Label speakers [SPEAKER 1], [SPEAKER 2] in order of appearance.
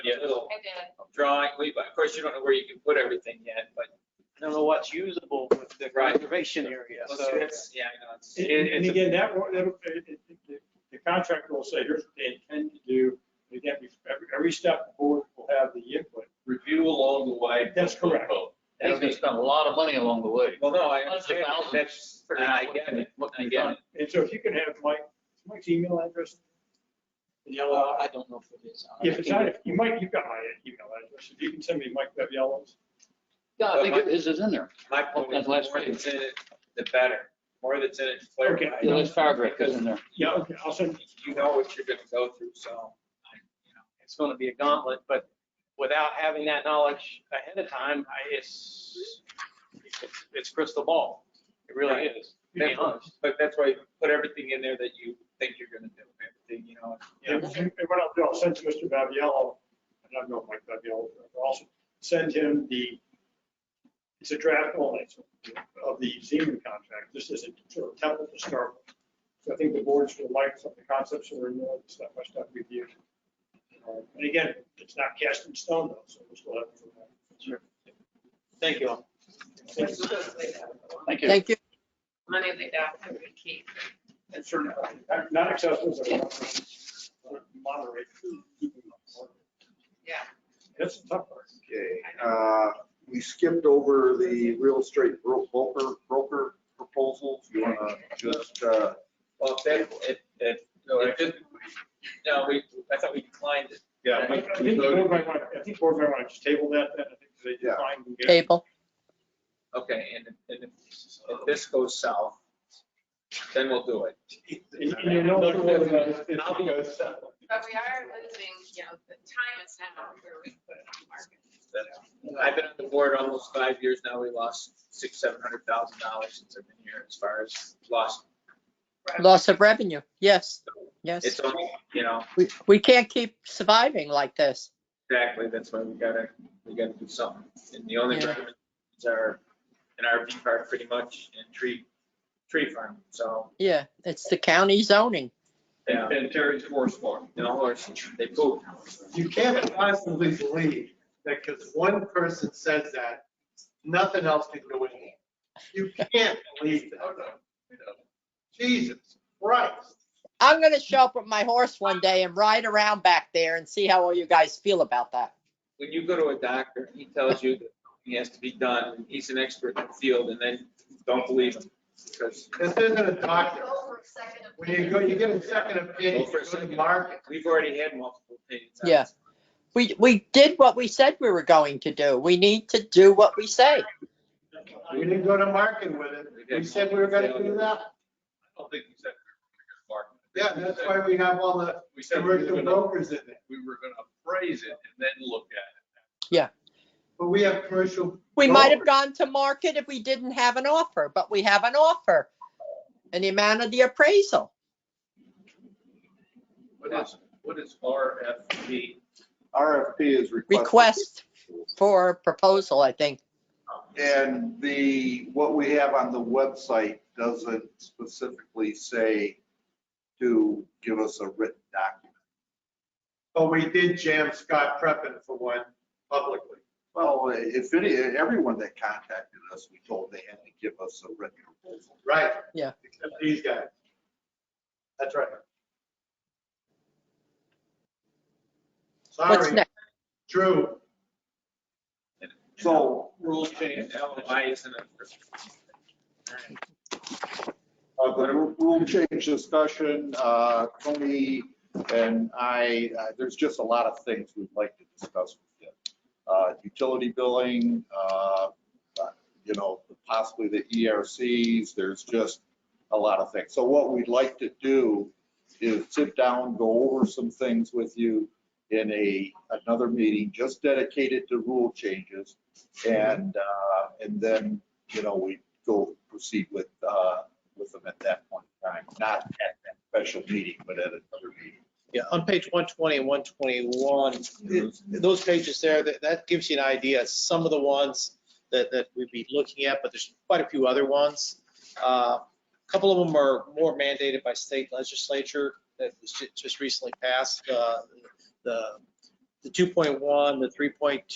[SPEAKER 1] Yeah, little
[SPEAKER 2] I did.
[SPEAKER 1] drawing, we, of course, you don't know where you can put everything yet, but,
[SPEAKER 3] I don't know what's usable with the
[SPEAKER 1] Right.
[SPEAKER 3] conservation area,
[SPEAKER 1] so
[SPEAKER 3] so.
[SPEAKER 1] that's, yeah, I know, it's-
[SPEAKER 4] And-
[SPEAKER 1] it-
[SPEAKER 4] And
[SPEAKER 1] it's a-
[SPEAKER 4] again, that, wa- that, uh, it- it- it- the contractor will say, here's what they intend to do. And Again, we- every, every step the board will have the input.
[SPEAKER 5] Review along the way.
[SPEAKER 4] That's correct.
[SPEAKER 6] They're gonna spend a lot of money along the way.
[SPEAKER 1] Well, no, I
[SPEAKER 6] Hundreds of
[SPEAKER 1] understand,
[SPEAKER 6] thousands.
[SPEAKER 1] that's,
[SPEAKER 6] Figuring out
[SPEAKER 1] I
[SPEAKER 6] what-
[SPEAKER 1] get it,
[SPEAKER 6] what can
[SPEAKER 1] I
[SPEAKER 6] be
[SPEAKER 1] get
[SPEAKER 6] done.
[SPEAKER 1] it.
[SPEAKER 4] And so if you can have Mike, is Mike's email address.
[SPEAKER 3] Uh, I don't know if it is.
[SPEAKER 4] If it's not, you might, you've got my email address. If you can send me Mike Beviello's.
[SPEAKER 6] Yeah, I think it is, it's in there.
[SPEAKER 1] My point is,
[SPEAKER 6] That's
[SPEAKER 1] the more
[SPEAKER 6] last page.
[SPEAKER 1] that's in it, the better, more that's in it,
[SPEAKER 4] Okay.
[SPEAKER 1] clarify.
[SPEAKER 6] The last paragraph is in there.
[SPEAKER 4] Yeah, okay, I'll send.
[SPEAKER 1] You know what you're gonna go through, so, I- you know,
[SPEAKER 3] It's gonna be a gauntlet, but without having that knowledge ahead of time, I, it's, it's- it's crystal ball. It really
[SPEAKER 1] Right.
[SPEAKER 3] is, to be honest.
[SPEAKER 1] but that's why you put everything in there that you think you're gonna do, everything, you know.
[SPEAKER 4] And and what I'll do, I'll send to Mr. Baviello, and I know Mike Baviello, I'll also send him the, it's a draft only of the Zeman contract. This is a sort of template to start with. So I think the boards will like some of the concepts that are in there, step by step review. Uh, And again, it's not cast in stone though, so we'll still have. to work on it.
[SPEAKER 3] Thank you all.
[SPEAKER 4] Thank you.
[SPEAKER 6] Thank you.
[SPEAKER 7] Thank you.
[SPEAKER 2] Money they got, I would keep.
[SPEAKER 4] And sure, not- Not accessible, but moderate.
[SPEAKER 2] Yeah.
[SPEAKER 4] That's a tough part.
[SPEAKER 8] Okay, uh, we skipped over the real estate bro- broker, broker proposals. You wanna just, uh,
[SPEAKER 1] Well, if that, if, if, if it- no, we, I thought we declined it.
[SPEAKER 5] Yeah.
[SPEAKER 4] I
[SPEAKER 5] we-
[SPEAKER 4] I
[SPEAKER 5] we
[SPEAKER 4] think board
[SPEAKER 5] voted.
[SPEAKER 4] might want, I think board might want to just table that then. I think they
[SPEAKER 8] Yeah.
[SPEAKER 4] declined. and gave-
[SPEAKER 7] Table.
[SPEAKER 1] Okay, and, if- and if, if this goes south, then we'll do it.
[SPEAKER 4] And and you know, whether that-
[SPEAKER 2] But we are losing, you know, the time is now where we put it on the market.
[SPEAKER 1] I've been on the board almost five years now. We lost six, seven hundred thousand dollars since I've been here as far as lost.
[SPEAKER 7] Loss of revenue. Yes,
[SPEAKER 1] It's
[SPEAKER 7] yes.
[SPEAKER 1] only, you know,
[SPEAKER 7] We, we can't keep surviving like this.
[SPEAKER 1] exactly, that's why we gotta, we gotta do something. And the only
[SPEAKER 7] Yeah.
[SPEAKER 1] remedies are an RV park pretty much and tree, tree farm, so,
[SPEAKER 7] Yeah, it's the county zoning.
[SPEAKER 1] yeah,
[SPEAKER 5] And Terry's horse farm.
[SPEAKER 1] no horses, they poop.
[SPEAKER 9] You can't possibly believe that because one person says that, nothing else can go in. You can't believe
[SPEAKER 4] Oh,
[SPEAKER 9] that. Jesus Christ.
[SPEAKER 7] I'm gonna show up with my horse one day and ride around back there and see how all you guys feel about that.
[SPEAKER 1] When you go to a doctor, he tells you that he has to be done, he's an expert in the field, and then don't believe him. Because
[SPEAKER 9] This isn't a doctor.
[SPEAKER 2] Go for a second
[SPEAKER 9] When you go, you get a second opinion, you go to the market.
[SPEAKER 1] we've already had multiple opinions. on
[SPEAKER 7] Yeah.
[SPEAKER 1] this.
[SPEAKER 7] We, we did what we said we were going to do. We need to do what we say.
[SPEAKER 9] We didn't go to market with it. We said we were gonna do that.
[SPEAKER 5] I don't think we said. we were gonna
[SPEAKER 9] Yeah,
[SPEAKER 5] market.
[SPEAKER 9] that's why we have all the
[SPEAKER 5] We said we were
[SPEAKER 9] commercial
[SPEAKER 5] gonna,
[SPEAKER 9] brokers in it.
[SPEAKER 5] we were gonna appraise it and then look at
[SPEAKER 9] But we have commercial.
[SPEAKER 7] We might have
[SPEAKER 9] brokers.
[SPEAKER 7] gone to market if we didn't have an offer, but we have an offer. And the amount of the appraisal.
[SPEAKER 5] it. What is, what is RFP?
[SPEAKER 8] RFP is requested.
[SPEAKER 7] Request for proposal, I think.
[SPEAKER 8] And the, what we have on the website doesn't specifically say to give us a written document.
[SPEAKER 9] But we did jam Scott Preppin for one publicly.
[SPEAKER 8] Well, if any, everyone that contacted us, we told they had to give us a written proposal.
[SPEAKER 9] Right.
[SPEAKER 7] Yeah.
[SPEAKER 9] Except these guys. That's right.
[SPEAKER 7] What's
[SPEAKER 9] Sorry,
[SPEAKER 7] next?
[SPEAKER 9] Drew.
[SPEAKER 8] So
[SPEAKER 1] Rules change, LMI isn't a.
[SPEAKER 8] Uh, The rule change discussion, uh, Tony and I, uh, there's just a lot of things we'd like to discuss with you. Uh, Utility billing, uh, you know, possibly the ERCs, there's just a lot of things. So what we'd like to do is sit down, go over some things with you in a, another meeting just dedicated to rule changes. And, uh, and then, you know, we go proceed with uh, with them at that point in time, not at that special meeting, but at another meeting.
[SPEAKER 3] Yeah, on page 120 and 121, it- those pages there, that, that gives you an idea, of some of the ones that, that we'd be looking at, but there's quite a few other ones. Uh, A Couple of them are more mandated by state legislature that was ju- just recently passed, uh, the the 2.1, the 3.2.